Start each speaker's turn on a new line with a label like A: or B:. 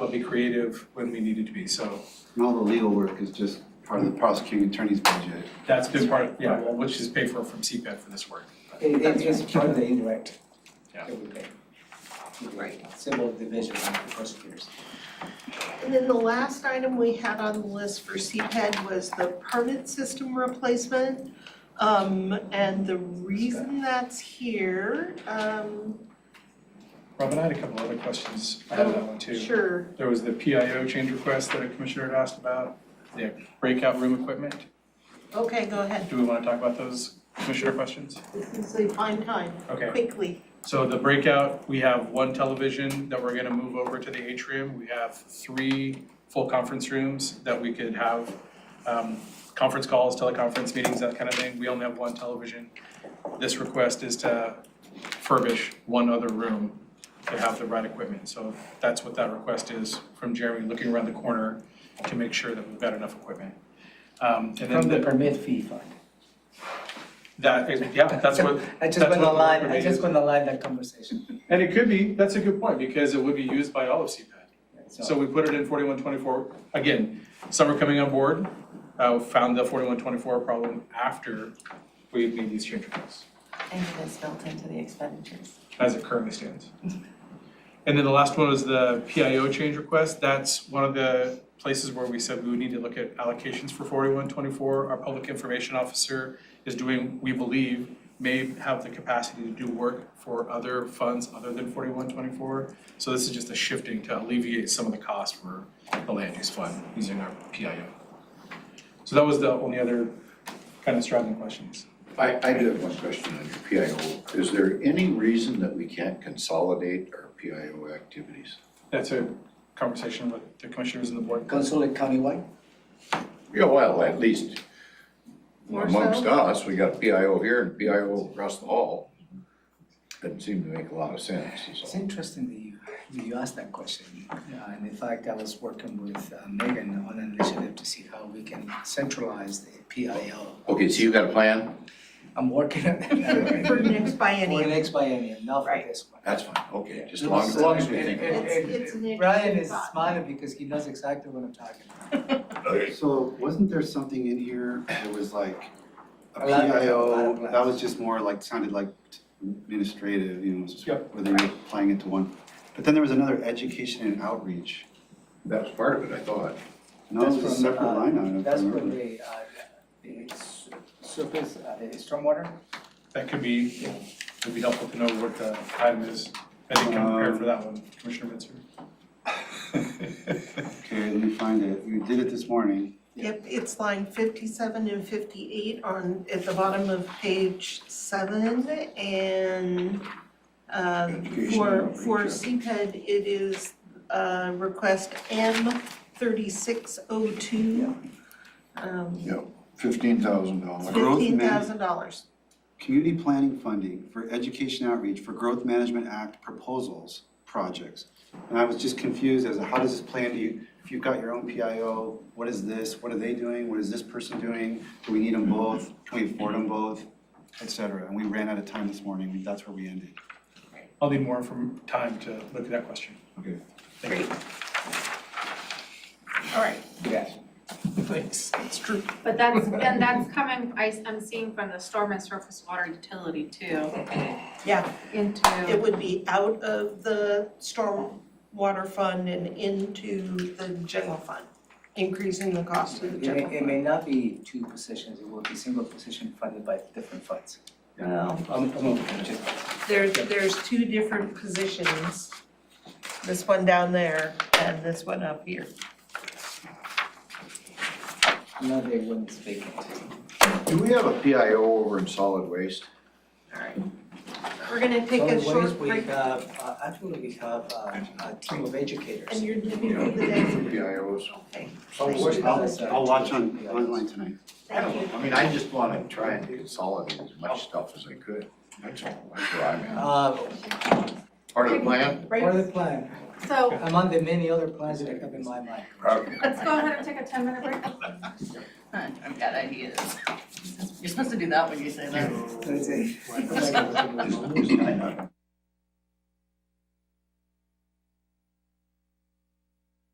A: but be creative when we needed to be, so
B: And all the legal work is just part of the prosecuting attorney's budget.
A: that's been part, of yeah, well, which is paid for from CPAD for this work.
C: It, it is part of the indirect.
A: Yeah.
C: that we pay. Right. Civil division of the prosecutors.
D: And then the last item we had on the list for CPED was the permit system replacement. Um, and the reason that's here, um,
A: Robin, I had a couple other questions about that one too.
D: sure,
A: There was the PIO change request that a commissioner had asked about, the breakout room equipment.
D: okay, go ahead,
A: Do we want to talk about those commissioner questions?
D: this is a fine time,
A: Okay.
D: quickly.
A: So the breakout, we have one television that we're gonna move over to the atrium. We have three full conference rooms that we could have um, conference calls, teleconference meetings, that kind of thing. We only have one television. This request is to furbish one other room to have the right equipment. So that's what that request is from Jeremy, looking around the corner to make sure that we've got enough equipment. Um, And then
C: From the
A: the-
C: permit fee fund.
A: that, is- yeah, that's what,
C: I
A: that's
C: just want to
A: what the
C: align, I
A: permit
C: just
A: is.
C: want to align that conversation.
A: and it could be, that's a good point, because it would be used by all of CPAD. So
C: So,
A: we put it in forty-one twenty-four, again, some are coming on board, uh, found the forty-one twenty-four problem after we made these change requests,
E: And it's built into the expenditures.
A: as it currently stands. And then the last one was the PIO change request, that's one of the places where we said we would need to look at allocations for forty-one twenty-four. Our public information officer is doing, we believe, may have the capacity to do work for other funds other than forty-one twenty-four. So this is just a shifting to alleviate some of the cost for the land use fund using our PIO. So that was the only other kind of strategy questions.
F: I, I do have one question on your PIO. Is there any reason that we can't consolidate our PIO activities?
A: That's a conversation with the commissioners and the board.
C: consulate countywide?
F: Yeah, well, at least
D: More so?
F: amongst us, we got PIO here and PIO across the hall. Doesn't seem to make a lot of sense, is all.
C: It's interesting that you, that you asked that question. Yeah, and in fact, I was working with uh, Megan on an initiative to see how we can centralize the PIO.
F: Okay, so you got a plan?
C: I'm working on that.
D: For E next
C: For
D: biennium.
C: next biennium, not for
D: Right.
C: this one.
F: That's fine, okay, just as long as, long as we think. about it.
D: It's, it's an
C: Brian
D: interesting
C: is
D: thought.
C: smiling because he knows exactly what I'm talking about.
B: So wasn't there something in here that was like a
C: A lot of- a lot
B: PIO,
C: of plans.
B: that was just more like, sounded like administrative, you know, just
A: Yep.
B: whether you're applying it to one. But then there was another education and outreach.
F: That was part of it, I thought.
B: No, it was a
C: That's from,
B: separate
C: uh,
B: line item. if I
C: That's for
B: remember.
C: the, uh, the s- surface, uh, the stormwater?
A: That could be, it'd be helpful to know what the item is. I think I'm prepared for that one, Commissioner Bitzer.
B: Okay, let me find it. We did it this morning.
D: Yep, it's line fifty-seven and fifty-eight on, at the bottom of page seven, and um,
F: Education
D: for,
F: outreach,
D: for
F: yeah.
D: CPED, it is uh, request M thirty-six oh two.
F: Yeah. Fifteen thousand dollars.
B: Growth man-
D: Fifteen thousand dollars.
B: Community planning funding for education outreach for Growth Management Act proposals, projects. And I was just confused as to how does this play into, you- if you've got your own PIO, what is this? What are they doing? What is this person doing? Do we need them both? Can we afford them both? Et cetera. And we ran out of time this morning. We- That's where we ended.
A: I'll need more from time to look at that question.
B: Okay.
D: Great. All right,
C: Yes.
A: Thanks, that's true.
G: But that's, and that's coming, I, am seeing from the storm and surface water utility too.
D: Yeah. it
G: Into,
D: would be out of the stormwater fund and into the general fund, increasing the cost of the
C: It
D: general
C: may,
D: fund.
C: it may not be two positions, it will be single position funded by different funds.
D: Well,
C: I'm, I'm okay, I'm just,
D: there, there's two different positions. This one down there and this one up here.
C: no, they wouldn't speak it.
F: Do we have a PIO over in solid waste?
D: All right. We're gonna take a short
C: Otherwise, we
D: break
C: have, uh, actually, we have uh, a team of
D: and
C: educators.
D: you're giving me the next,
F: PIOs?
D: okay,
B: I'll, I'll watch on, online tonight.
D: thank you.
F: I mean, I just wanna try and consolidate as much stuff as I could. That's all, that's where I'm at.
C: Uh,
F: Part of the plan?
C: Part
D: Right,
C: of the plan,
G: so
C: among the many other plans that I have in my mind.
F: Okay.
G: let's go ahead and take a ten minute break.
E: I've got ideas. You're supposed to do that when you say that.
C: Let's see.
F: Is- is nine hundred